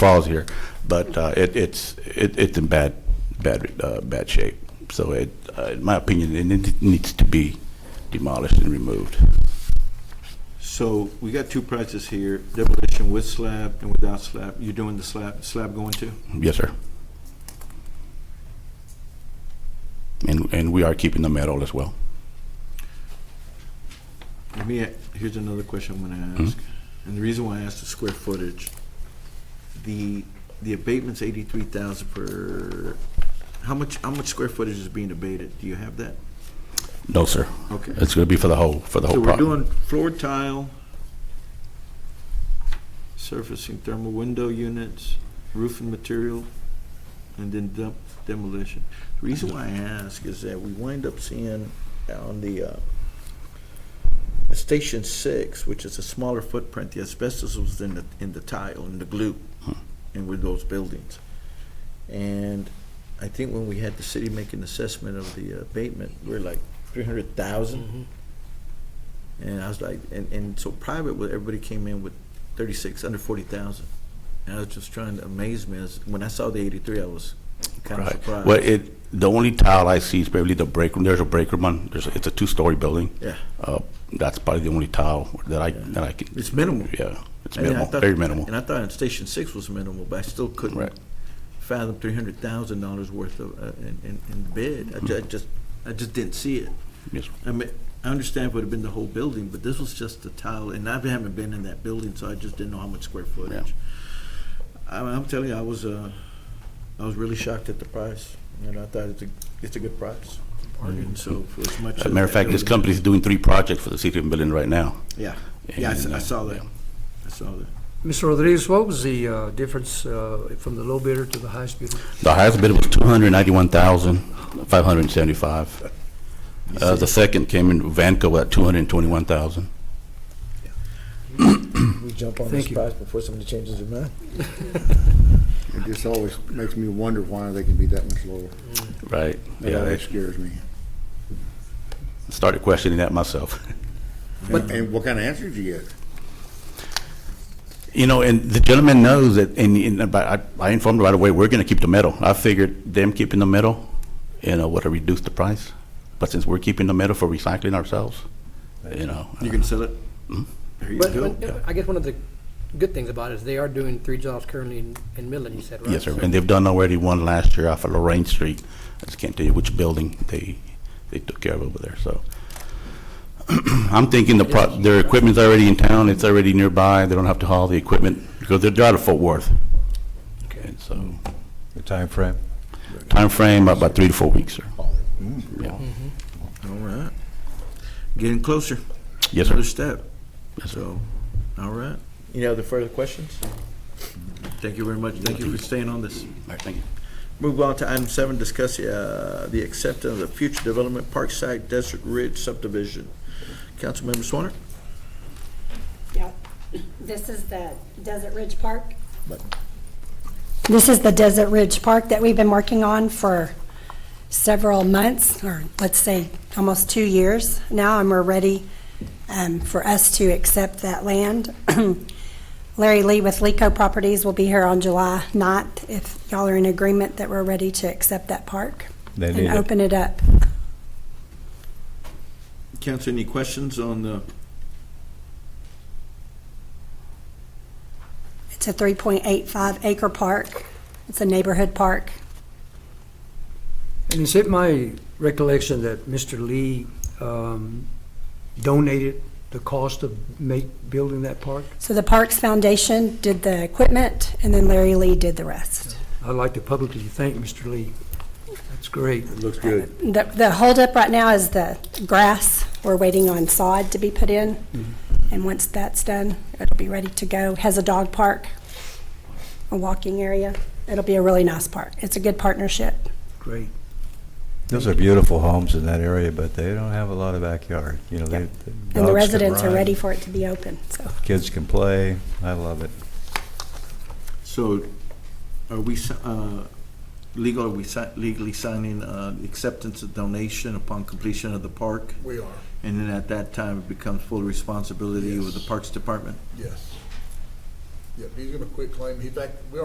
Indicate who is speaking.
Speaker 1: falls here, but uh, it, it's, it, it's in bad, bad, uh, bad shape. So it, uh, in my opinion, it need- needs to be demolished and removed.
Speaker 2: So we got two prices here, demolition with slab and without slab. You're doing the slab, slab going to?
Speaker 1: Yes, sir. And, and we are keeping the metal as well.
Speaker 2: Let me, a- here's another question I'm gonna ask. And the reason why I asked the square footage, the, the abatement's eighty-three thousand per, how much, how much square footage is being abated? Do you have that?
Speaker 1: No, sir.
Speaker 2: Okay.
Speaker 1: It's going to be for the whole, for the
Speaker 2: So
Speaker 1: whole
Speaker 2: we're
Speaker 1: property.
Speaker 2: doing floor tile, surfacing thermal window units, roofing material, and then dem- demolition. The reason why I ask is that we wind up seeing on the, uh, Station Six, which is a smaller footprint, the asbestos was in the, in the tile, in the glue, and with those buildings. And I think when we had the city make an assessment of the abatement, we're like three hundred thousand. And I was like, and, and so private, well, everybody came in with thirty-six, under forty thousand. And I was just trying to amaze me, as, when I saw the eighty-three, I was kind of
Speaker 1: Right.
Speaker 2: surprised.
Speaker 1: Well, it, the only tile I see is probably the break room. There's a break room on, there's, a- it's a two-story building.
Speaker 2: Yeah.
Speaker 1: Uh, That's probably the only tile that I, that I can.
Speaker 2: It's minimal.
Speaker 1: Yeah, it's
Speaker 2: And then I
Speaker 1: minimal,
Speaker 2: thought-
Speaker 1: very minimal.
Speaker 2: And I thought Station Six was minimal, but I still couldn't
Speaker 1: Right.
Speaker 2: fathom three hundred thousand dollars worth of, uh, in, in, in bid. I
Speaker 1: Mm-hmm.
Speaker 2: ju- I just, I just didn't see it.
Speaker 1: Yes, sir.
Speaker 2: I mean, I understand it would have been the whole building, but this was just the tile, and I haven't been in that building, so I just didn't know how much square footage. I'm, I'm telling you, I was, uh, I was really shocked at the price, and I thought it's a, it's a good price. And so for as much.
Speaker 1: As a matter of fact, this company is doing three projects for the city of Midland right now.
Speaker 2: Yeah, yeah, I s- I
Speaker 1: And, uh,
Speaker 2: saw that,
Speaker 1: yeah.
Speaker 2: I saw that.
Speaker 3: Mr. Rodriguez, what was the uh, difference uh, from the low bidder to the highest bidder?
Speaker 1: The highest bid was two hundred ninety-one thousand, five hundred and seventy-five. Uh, the second came in Vanco at two hundred and twenty-one thousand.
Speaker 4: We jump on
Speaker 3: Thank
Speaker 4: this
Speaker 3: you.
Speaker 4: price before somebody changes their mind.
Speaker 5: It just always makes me wonder why they can be that much lower.
Speaker 1: Right,
Speaker 5: That
Speaker 1: yeah, I
Speaker 5: always scares me.
Speaker 1: started questioning that myself.
Speaker 5: And what kind of answers you get?
Speaker 1: You know, and the gentleman knows that, and, and about- I, I informed him right away, we're gonna keep the metal. I figured them keeping the metal, you know, would have reduced the price. But since we're keeping the metal for recycling ourselves, you know.
Speaker 2: You can sell it?
Speaker 1: Hmm?
Speaker 2: There you
Speaker 6: But
Speaker 2: go.
Speaker 6: but I guess one of the good things about it is they are doing three jobs currently in in Midland, you said, right?
Speaker 1: Yes, sir,
Speaker 6: So-
Speaker 1: and they've done already one last year off of Lorraine Street. I just can't tell you which building they, they took care of over there, so. I'm thinking the pro, their equipment's already in town, it's already nearby, they don't have to haul the equipment, because they're they're out of Fort Worth. Okay, so,
Speaker 7: The time frame.
Speaker 1: time frame about three to four weeks, sir. Yeah.
Speaker 2: All right. Getting closer.
Speaker 1: Yes,
Speaker 2: Another
Speaker 1: sir.
Speaker 2: step. So, all right. Any other further questions? Thank you very much. Thank you for staying on this.
Speaker 1: All right, thank you.
Speaker 2: Move on to item seven, discuss uh, the acceptance of the future development Parkside Desert Ridge subdivision. Councilmember Swanner?
Speaker 8: Yep. This is the Desert Ridge Park. This is the Desert Ridge Park that we've been working on for several months, or let's say, almost two years now, and we're ready um, for us to accept that land. Larry Lee with Leco Properties will be here on July 9th, if y'all are in agreement that we're ready to accept that park
Speaker 7: They
Speaker 8: and
Speaker 7: need it.
Speaker 8: open it up.
Speaker 2: Council, any questions on the,
Speaker 8: It's a 3.85 acre park. It's a neighborhood park.
Speaker 3: And is it my recollection that Mr. Lee um, donated the cost of make, building that park?
Speaker 8: So the Parks Foundation did the equipment, and then Larry Lee did the rest.
Speaker 3: I'd like to publicly thank Mr. Lee. That's great.
Speaker 5: Looks good.
Speaker 8: The the holdup right now is the grass. We're waiting on sod to be put in, and once that's done, it'll be ready to go. Has a dog park, a walking area. It'll be a really nice park. It's a good partnership.
Speaker 3: Great.
Speaker 7: Those are beautiful homes in that area, but they don't have a lot of backyard. You know, they.
Speaker 8: And
Speaker 7: dogs
Speaker 8: the
Speaker 7: can
Speaker 8: residents are
Speaker 7: run,
Speaker 8: ready for it to be open, so.
Speaker 7: Kids can play. I love it.
Speaker 2: so are we, si- uh, legal, are we si- legally signing uh, acceptance of donation upon completion of the park?
Speaker 4: We are,
Speaker 2: And then at that time, it becomes full responsibility of the
Speaker 4: Yes.
Speaker 2: Parks Department?
Speaker 4: yes. Yep, he's gonna quit claim, in fact, we